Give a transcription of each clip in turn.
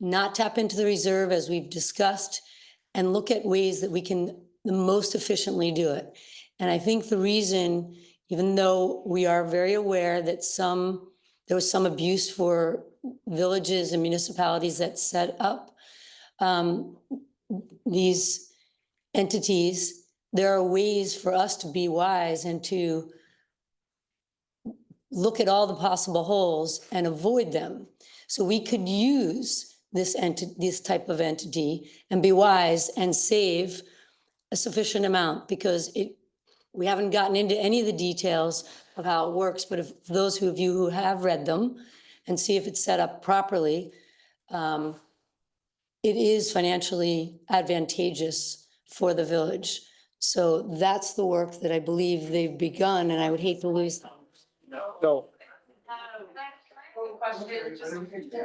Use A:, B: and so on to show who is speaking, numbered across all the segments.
A: not tap into the reserve as we've discussed and look at ways that we can the most efficiently do it. And I think the reason, even though we are very aware that some, there was some abuse for villages and municipalities that set up um, these entities, there are ways for us to be wise and to look at all the possible holes and avoid them. So we could use this entity, this type of entity and be wise and save a sufficient amount because it, we haven't gotten into any of the details of how it works, but if those who- of you who have read them and see if it's set up properly, um, it is financially advantageous for the village. So that's the work that I believe they've begun and I would hate to lose them.
B: No,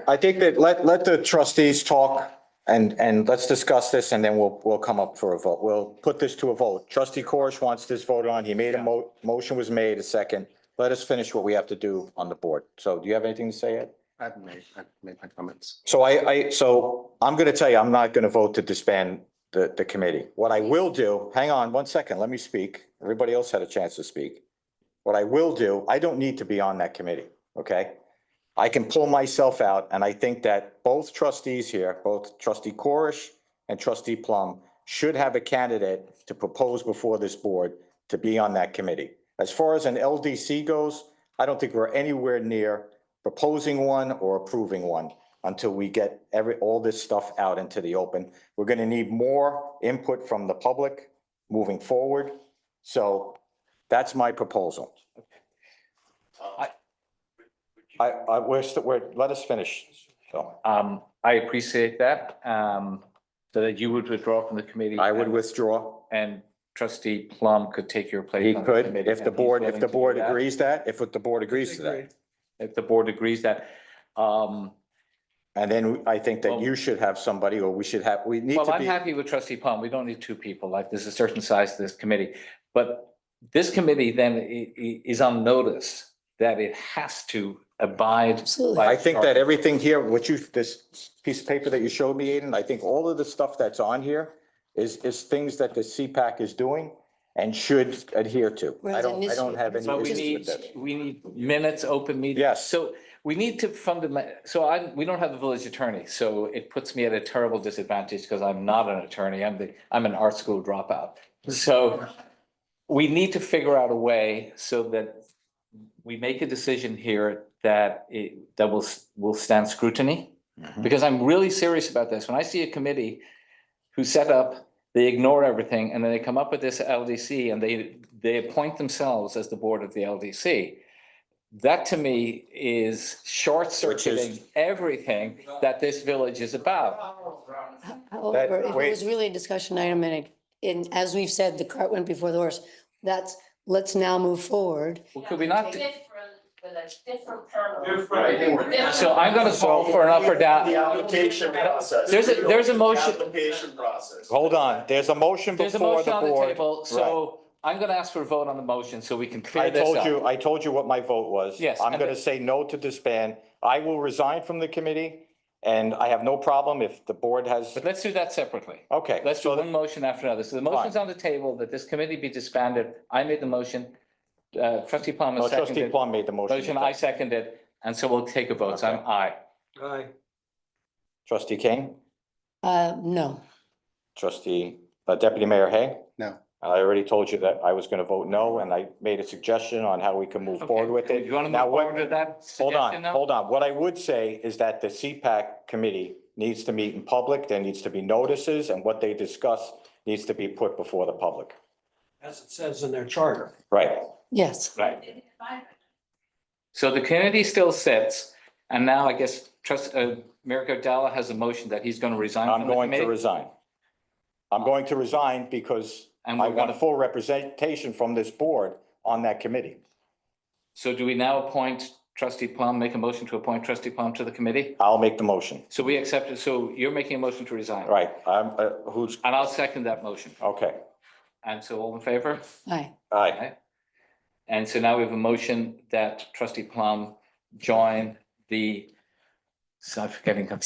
C: I think that let, let the trustees talk and, and let's discuss this and then we'll, we'll come up for a vote. We'll put this to a vote. Trustee Corish wants this voted on. He made a mo, motion was made, a second. Let us finish what we have to do on the board. So do you have anything to say Ed?
B: I've made, I've made my comments.
C: So I, I, so I'm going to tell you, I'm not going to vote to disband the, the committee. What I will do, hang on one second, let me speak. Everybody else had a chance to speak. What I will do, I don't need to be on that committee, okay? I can pull myself out and I think that both trustees here, both trustee Corish and trustee Plum should have a candidate to propose before this board to be on that committee. As far as an LDC goes, I don't think we're anywhere near proposing one or approving one until we get every, all this stuff out into the open. We're gonna need more input from the public moving forward. So that's my proposal. I, I, I wish that we're, let us finish. So
D: Um, I appreciate that, um, so that you would withdraw from the committee.
C: I would
D: and-
C: withdraw.
D: And trustee Plum could take your place.
C: He
D: on the
C: could,
D: committee,
C: if
D: and
C: the
D: he's
C: board, if
D: willing
C: the
D: to do
C: board
D: that.
C: agrees that, if the board agrees to that.
D: If the board agrees that, um,
C: And then I think that you should have somebody, or we should have, we need
D: well,
C: to
D: I'm
C: be.
D: happy with trustee Plum. We don't need two people. Like, there's a certain size to this committee. But this committee then i- i- is on notice that it has to abide.
A: Absolutely.
D: by
C: I think that everything here, what you, this piece of paper that you showed me, Aiden, I think all of the stuff that's on here is, is things that the CPAC is doing and should adhere to. I
A: Right,
C: don't,
A: and
C: I don't have any
D: But we
C: issues with
D: need,
C: that.
D: we need minutes, open meetings.
C: Yes.
D: So we need to fundament, so I, we don't have a village attorney, so it puts me at a terrible disadvantage because I'm not an attorney. I'm the, I'm an art school dropout. So we need to figure out a way so that we make a decision here that it, that will, will stand scrutiny. Because I'm really serious about this. When I see a committee who set up, they ignore everything, and then they come up with this LDC and they, they appoint themselves as the board of the LDC. That to me is short circuiting everything that this village is about.
A: However, Uh, if it
C: wait.
A: was really a discussion item and, it- and as we've said, the cart went before the horse, that's, let's now move forward.
D: Well, Could we not?
E: Different, with a different panel.
F: Different.
D: So I'm gonna call for an up or
F: The
D: down.
F: application process.
D: There's a- there's a motion.
F: The Application process.
C: Hold on, there's a motion
D: There's a
C: before
D: motion
C: the
D: on the
C: board.
D: table, so I'm gonna ask for a vote on the motion so we can
C: I
D: clear this
C: told
D: up.
C: you, I told you what my vote was.
D: Yes,
C: I'm
D: and
C: gonna
D: the-
C: say no to disband. I will resign from the committee and I have no problem if the board has,
D: But let's do that separately.
C: okay.
D: Let's do
C: so
D: one motion after another. So the motion's on the table that this committee be disbanded. I made the motion. Uh, trustee Plum
C: No,
D: has
C: trustee
D: seconded.
C: Plum made the motion.
D: Motion, I seconded, and so we'll take a vote. So I'm aye.
B: Aye.
C: Trustee King,
A: Uh, no,
C: trustee, uh, deputy mayor Hay?
B: No.
C: I already told you that I was gonna vote no, and I made a suggestion on how we can move forward with
D: Okay.
C: it.
D: You want to
C: Now,
D: move
C: what-
D: forward with that
C: Hold
D: suggestion
C: on,
D: now?
C: hold on. What I would say is that the CPAC committee needs to meet in public. There needs to be notices, and what they discuss needs to be put before the public.
G: as it says in their charter.
C: Right.
A: yes.
D: Right. So the committee still sits, and now I guess trust, uh, Mayor Gardella has a motion that he's going to resign
C: I'm
D: from the
C: going to
D: committee.
C: resign. I'm going to resign because
D: And
C: I
D: we're going
C: want
D: to,
C: full representation from this board on that committee.
D: so do we now appoint trustee Plum, make a motion to appoint trustee Plum to the committee?
C: I'll make the motion.
D: So we accept it. So you're making a motion to resign.
C: Right, I'm, uh, who's,
D: And I'll second that motion.
C: okay,
D: And so all in favor?
A: Aye.
C: aye.
D: And so now we have a motion that trustee Plum join the, so I'm forgetting,